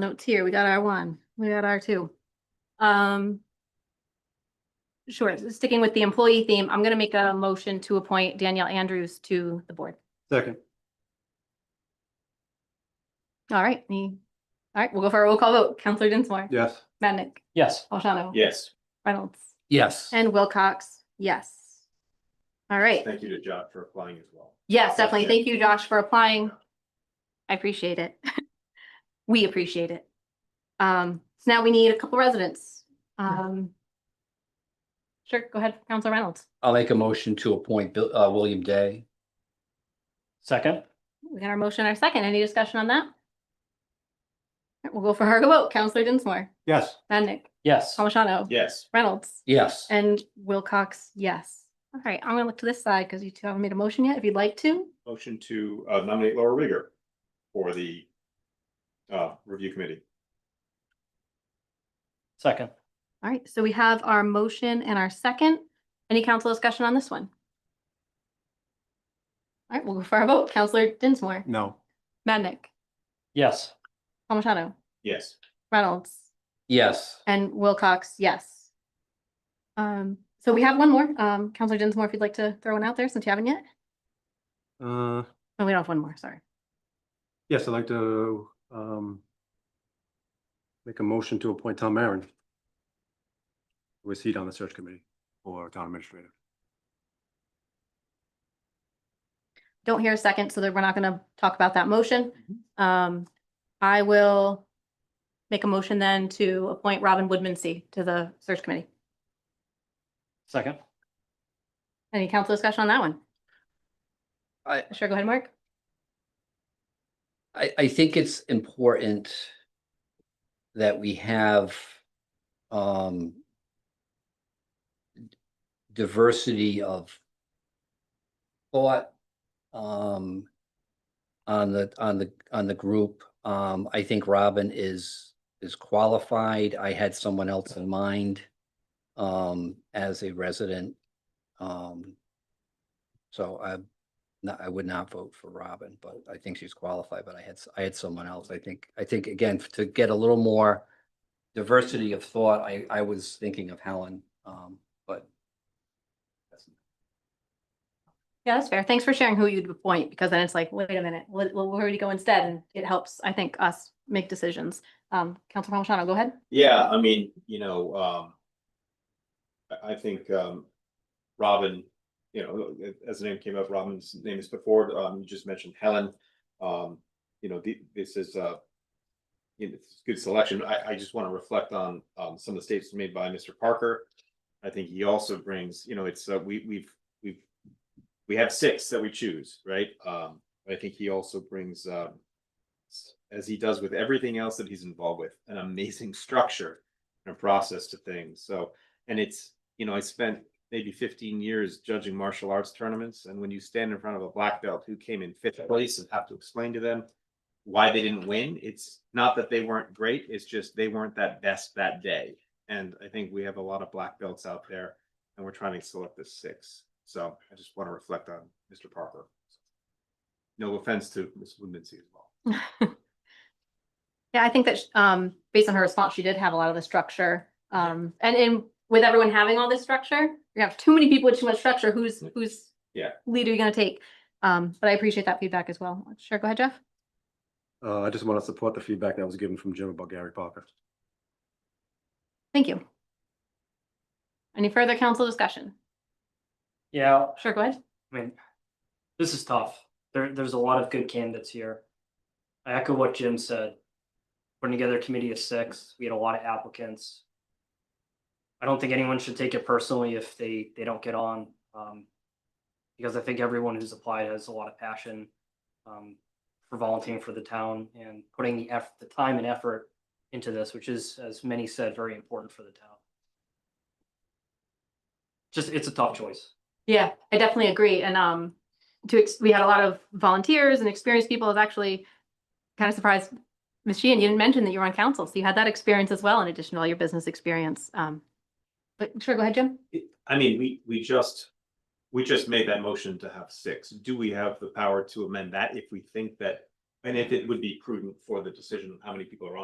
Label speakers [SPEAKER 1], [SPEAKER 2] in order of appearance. [SPEAKER 1] Notes here, we got our one, we got our two. Um. Sure, sticking with the employee theme, I'm gonna make a motion to appoint Danielle Andrews to the board.
[SPEAKER 2] Second.
[SPEAKER 1] All right, me, all right, we'll go for a roll call vote. Counselor Dinsmore.
[SPEAKER 2] Yes.
[SPEAKER 1] Madnick,
[SPEAKER 3] Yes.
[SPEAKER 1] O'Shannell.
[SPEAKER 4] Yes,
[SPEAKER 1] Reynolds.
[SPEAKER 3] Yes.
[SPEAKER 1] And Wilcox, yes. All right,
[SPEAKER 4] thank you to John for applying as well.
[SPEAKER 1] yes, definitely. Thank you, Josh, for applying. I appreciate it. We appreciate it. Um, so now we need a couple residents. Um. Sure, go ahead, Counselor Reynolds.
[SPEAKER 3] I'll make a motion to appoint Bill, uh, William Day. Second.
[SPEAKER 1] We got our motion, our second. Any discussion on that? All right, We'll go for our vote. Counselor Dinsmore,
[SPEAKER 2] Yes.
[SPEAKER 1] Madnick,
[SPEAKER 3] Yes.
[SPEAKER 1] Palmigano,
[SPEAKER 4] Yes,
[SPEAKER 1] Reynolds,
[SPEAKER 3] Yes.
[SPEAKER 1] and Wilcox, yes. All right, I'm gonna look to this side because you two haven't made a motion yet. If you'd like to,
[SPEAKER 4] motion to uh, nominate Laura Rigger for the uh, review committee.
[SPEAKER 3] Second.
[SPEAKER 1] All right, so we have our motion and our second. Any council discussion on this one? All right, we'll go for our vote. Counselor Dinsmore,
[SPEAKER 5] Mm.
[SPEAKER 2] No.
[SPEAKER 1] Madnick,
[SPEAKER 3] Yes.
[SPEAKER 1] Palmigano,
[SPEAKER 4] Yes,
[SPEAKER 1] Reynolds,
[SPEAKER 3] Yes.
[SPEAKER 1] and Wilcox, yes. Um, so we have one more. Um, Counselor Dinsmore, if you'd like to throw one out there since you haven't yet.
[SPEAKER 2] Uh,
[SPEAKER 1] Oh, we don't have one more, sorry.
[SPEAKER 2] yes, I'd like to, um, make a motion to appoint Tom Marin. Who is seat on the search committee for town administrator.
[SPEAKER 1] Don't hear a second, so that we're not gonna talk about that motion.
[SPEAKER 2] Mm-hmm.
[SPEAKER 1] Um, I will make a motion then to appoint Robin Woodmansee to the search committee.
[SPEAKER 3] Second.
[SPEAKER 1] Any council discussion on that one?
[SPEAKER 3] I-
[SPEAKER 1] Sure, go ahead, Mark.
[SPEAKER 5] I, I think it's important that we have um diversity of thought um on the on the on the group. Um, I think Robin is is qualified. I had someone else in mind um as a resident. Um, so I no, I would not vote for Robin, but I think she's qualified, but I had, s- I had someone else. I think, I think again, f- to get a little more diversity of thought, I, I was thinking of Helen, um, but
[SPEAKER 1] Yeah, that's fair. Thanks for sharing who you'd appoint, because then it's like, wait a minute, wh- wh- where would you go instead? And it helps, I think, us make decisions. Um, Council Palmigano, go ahead.
[SPEAKER 4] yeah, I mean, you know, um, I, I think um, Robin, you know, as the name came up, Robin's name is before, um, you just mentioned Helen. Um, you know, the, this is uh, you know, it's a good selection. I, I just want to reflect on, um, some of the statements made by Mr. Parker. I think he also brings, you know, it's, uh, we, we've, we've, we have six that we choose, right? Um, I think he also brings, um, s- as he does with everything else that he's involved with, an amazing structure and a process to things. So, and it's, you know, I spent maybe fifteen years judging martial arts tournaments. And when you stand in front of a black belt who came in fifth place and have to explain to them why they didn't win. It's not that they weren't great, it's just they weren't that best that day. And I think we have a lot of black belts out there and we're trying to select the six. So I just want to reflect on Mr. Parker. No offense to Ms. Woodmansee as well.
[SPEAKER 1] Yeah, I think that, sh- um, based on her response, she did have a lot of the structure. Um, and in, with everyone having all this structure, you have too many people with too much structure, who's, who's
[SPEAKER 4] Yeah.
[SPEAKER 1] lead are you gonna take? Um, but I appreciate that feedback as well. Sure, go ahead, Jeff.
[SPEAKER 2] Uh, I just want to support the feedback that was given from Jim about Gary Parker.
[SPEAKER 1] Thank you. Any further council discussion?
[SPEAKER 6] Yeah,
[SPEAKER 1] Sure, go ahead.
[SPEAKER 6] I mean, this is tough. There, there's a lot of good candidates here. I echo what Jim said. Putting together a committee of six, we had a lot of applicants. I don't think anyone should take it personally if they, they don't get on. um, Because I think everyone who's applied has a lot of passion um, for volunteering for the town and putting the effort, the time and effort into this, which is, as many said, very important for the town. Just, it's a tough choice.
[SPEAKER 1] Yeah, I definitely agree. And um, to, ex- we had a lot of volunteers and experienced people. I was actually kind of surprised, Ms. Sheehan, you didn't mention that you were on council, so you had that experience as well in addition to all your business experience. Um, but sure, go ahead, Jim.
[SPEAKER 4] it- I mean, we, we just, we just made that motion to have six. Do we have the power to amend that if we think that? And if it would be prudent for the decision of how many people are on?